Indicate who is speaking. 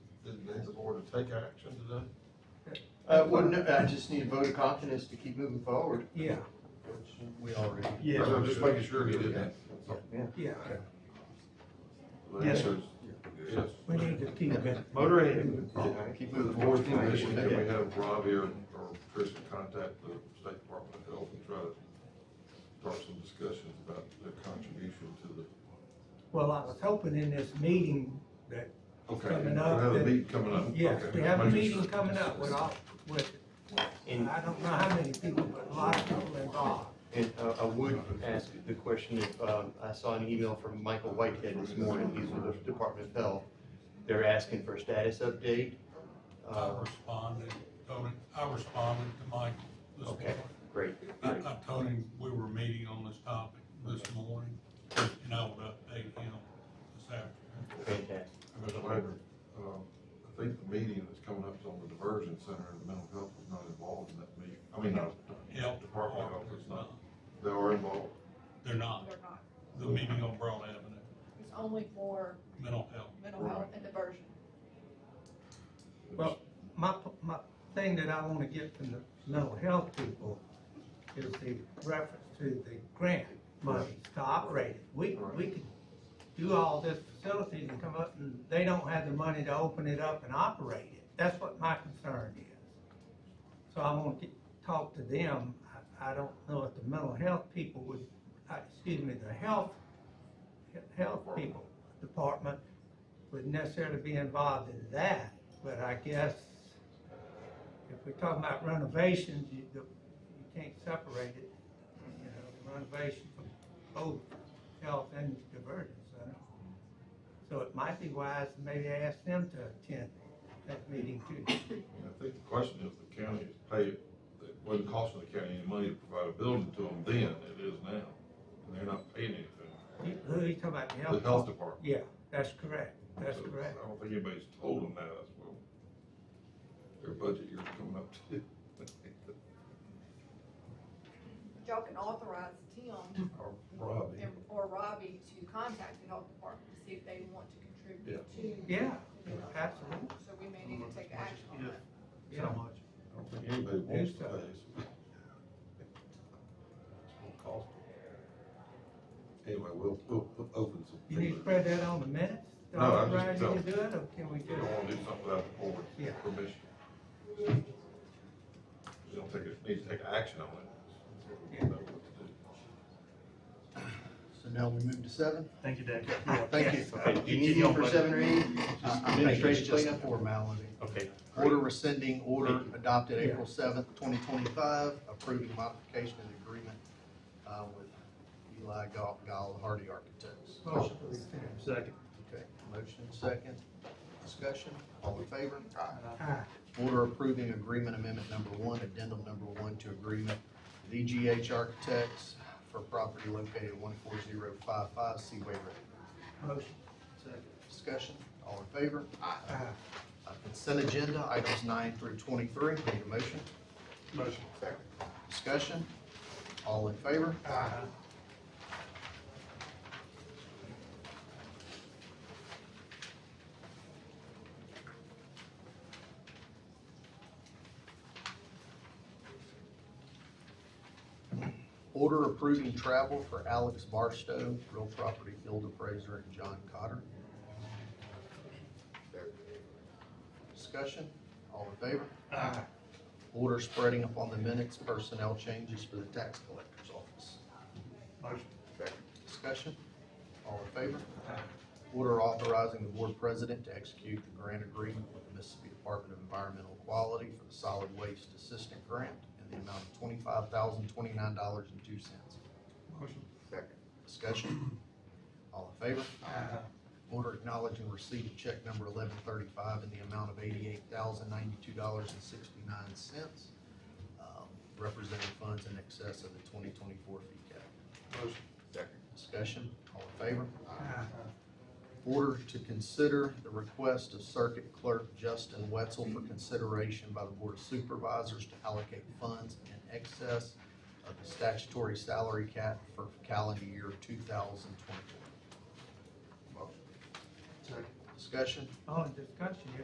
Speaker 1: gonna take action today?
Speaker 2: Uh, well, no, I just need a vote of confidence to keep moving forward.
Speaker 3: Yeah, we already.
Speaker 1: Yes. I'm just making sure he did that.
Speaker 3: Yeah, Yes, sir.
Speaker 1: Yes.
Speaker 3: we need to keep it.
Speaker 4: Moderated.
Speaker 2: Keep
Speaker 1: The
Speaker 2: moving
Speaker 1: board's
Speaker 2: forward.
Speaker 1: permission that we have Rob here or Chris to contact the State Department of Health and try to start some discussions about their contribution to the.
Speaker 3: Well, I was hoping in this meeting that,
Speaker 1: Okay.
Speaker 3: Coming
Speaker 1: we
Speaker 3: up,
Speaker 1: have a
Speaker 3: that-
Speaker 1: meeting coming up.
Speaker 3: yes,
Speaker 1: Okay,
Speaker 3: we have a
Speaker 1: making
Speaker 3: meeting
Speaker 1: sure.
Speaker 3: coming up with all, with,
Speaker 4: And,
Speaker 3: I don't know how many people, but a lot of people involved.
Speaker 4: and uh, I would ask the question if, um, I saw an email from Michael Whitehead this morning, he's with the Department of Health. They're asking for a status update.
Speaker 5: I
Speaker 4: Uh,
Speaker 5: responded, told him, I responded to Mike this
Speaker 4: Okay,
Speaker 5: morning.
Speaker 4: great,
Speaker 5: I,
Speaker 4: great.
Speaker 5: I told him we were meeting on this topic this morning, and I would update him this afternoon.
Speaker 4: fantastic.
Speaker 1: Mr. Wagner, um, I think the meeting that's coming up is on the diversion center and the mental health is not involved in that meeting. I mean, not, Department of
Speaker 5: Health department
Speaker 1: Health
Speaker 5: is
Speaker 1: is
Speaker 5: not,
Speaker 1: not, they are involved.
Speaker 5: they're not,
Speaker 6: They're not.
Speaker 5: the meeting on Broad Avenue,
Speaker 6: It's only for
Speaker 5: mental health.
Speaker 6: mental health and diversion.
Speaker 3: Well, my, my thing that I wanna get from the mental health people is the reference to the grant money to operate it. We, we could do all this facilities and come up and they don't have the money to open it up and operate it. That's what my concern is. So I wanna get, talk to them. I, I don't know if the mental health people would, uh, excuse me, the health, health people, department would necessarily be involved in that, but I guess if we're talking about renovations, you, the- you can't separate it, you know, renovation from both health and diversion center. So it might be wise to maybe ask them to attend that meeting too.
Speaker 1: And I think the question is the county is paid, it wasn't costing the county any money to provide a building to them then, it is now. And they're not paying anything.
Speaker 3: You- Who are you talking about, the
Speaker 1: The
Speaker 3: health?
Speaker 1: health department.
Speaker 3: Yeah, that's correct, that's
Speaker 1: So,
Speaker 3: correct.
Speaker 1: I don't think anybody's told them that, as well. Their budget year's coming up too.
Speaker 6: But Y'all can authorize Tim
Speaker 1: Or Robbie.
Speaker 6: and- or Robbie to contact the health department to see if they want to contribute to.
Speaker 3: Yeah,
Speaker 6: you know,
Speaker 3: absolutely,
Speaker 6: So we may need to take action on that.
Speaker 3: yeah.
Speaker 1: I don't think anybody wants to
Speaker 3: so.
Speaker 1: pay. us. It's gonna cost them. Anyway, we'll, we'll we'll open some.
Speaker 3: You need to spread that on the minutes?
Speaker 1: No, I'm just
Speaker 3: Authorize you to
Speaker 1: telling-
Speaker 3: do it, or can we
Speaker 1: You
Speaker 3: do
Speaker 1: don't
Speaker 3: it?
Speaker 1: wanna do something without the board
Speaker 3: Yeah.
Speaker 1: permission. You don't take, it- need to take action on it.
Speaker 3: Yeah.
Speaker 2: So now we move to seven?
Speaker 7: Thank you, Dave.
Speaker 2: Thank you. Uh,
Speaker 4: Okay,
Speaker 2: Do you
Speaker 4: you
Speaker 2: need
Speaker 4: don't
Speaker 2: me for
Speaker 4: want-
Speaker 2: seven or eight?
Speaker 7: I think it's
Speaker 2: Administrative
Speaker 7: just a
Speaker 2: cleanup?
Speaker 7: formality.
Speaker 4: Okay,
Speaker 2: Order rescinding order adopted
Speaker 3: Yeah.
Speaker 2: April seventh, twenty twenty-five, approving modification of the agreement, uh, with Eli Gall, Gall Hardy Architects.
Speaker 3: Motion to rescind.
Speaker 7: Second.
Speaker 2: Okay, motion second, discussion, all in favor?
Speaker 3: Aye.
Speaker 2: Order approving agreement amendment number one, addendum number one to agreement with EGH Architects for property located one four zero five five Seaway Road.
Speaker 3: Motion.
Speaker 2: Second. Discussion, all in favor?
Speaker 3: Aye.
Speaker 2: Uh, Consent agenda, items nine through twenty-three, need a motion?
Speaker 7: Motion.
Speaker 2: Discussion, all in favor?
Speaker 3: Aye.
Speaker 2: Order approving travel for Alex Barstow, real property field appraiser, and John Cotter. Discussion, all in favor?
Speaker 3: Aye.
Speaker 2: Order spreading upon the minutes personnel changes for the tax collector's office.
Speaker 7: Motion.
Speaker 2: Discussion, all in favor? Order authorizing the board president to execute the grant agreement with the Mississippi Department of Environmental Quality for the solid waste assistant grant in the amount of twenty-five thousand, twenty-nine dollars and two cents.
Speaker 7: Motion.
Speaker 2: Discussion, all in favor?
Speaker 3: Aye.
Speaker 2: Order acknowledging receipt of check number eleven thirty-five in the amount of eighty-eight thousand ninety-two dollars and sixty-nine cents, um, representing funds in excess of the twenty twenty-four fee cap.
Speaker 7: Motion.
Speaker 2: Discussion, all in favor?
Speaker 3: Aye.
Speaker 2: Order to consider the request of Circuit Clerk Justin Wetzel for consideration by the Board of Supervisors to allocate funds in excess of the statutory salary cap for calendar year two thousand twenty-four.
Speaker 7: Second.
Speaker 2: Discussion,
Speaker 3: Oh, discussion,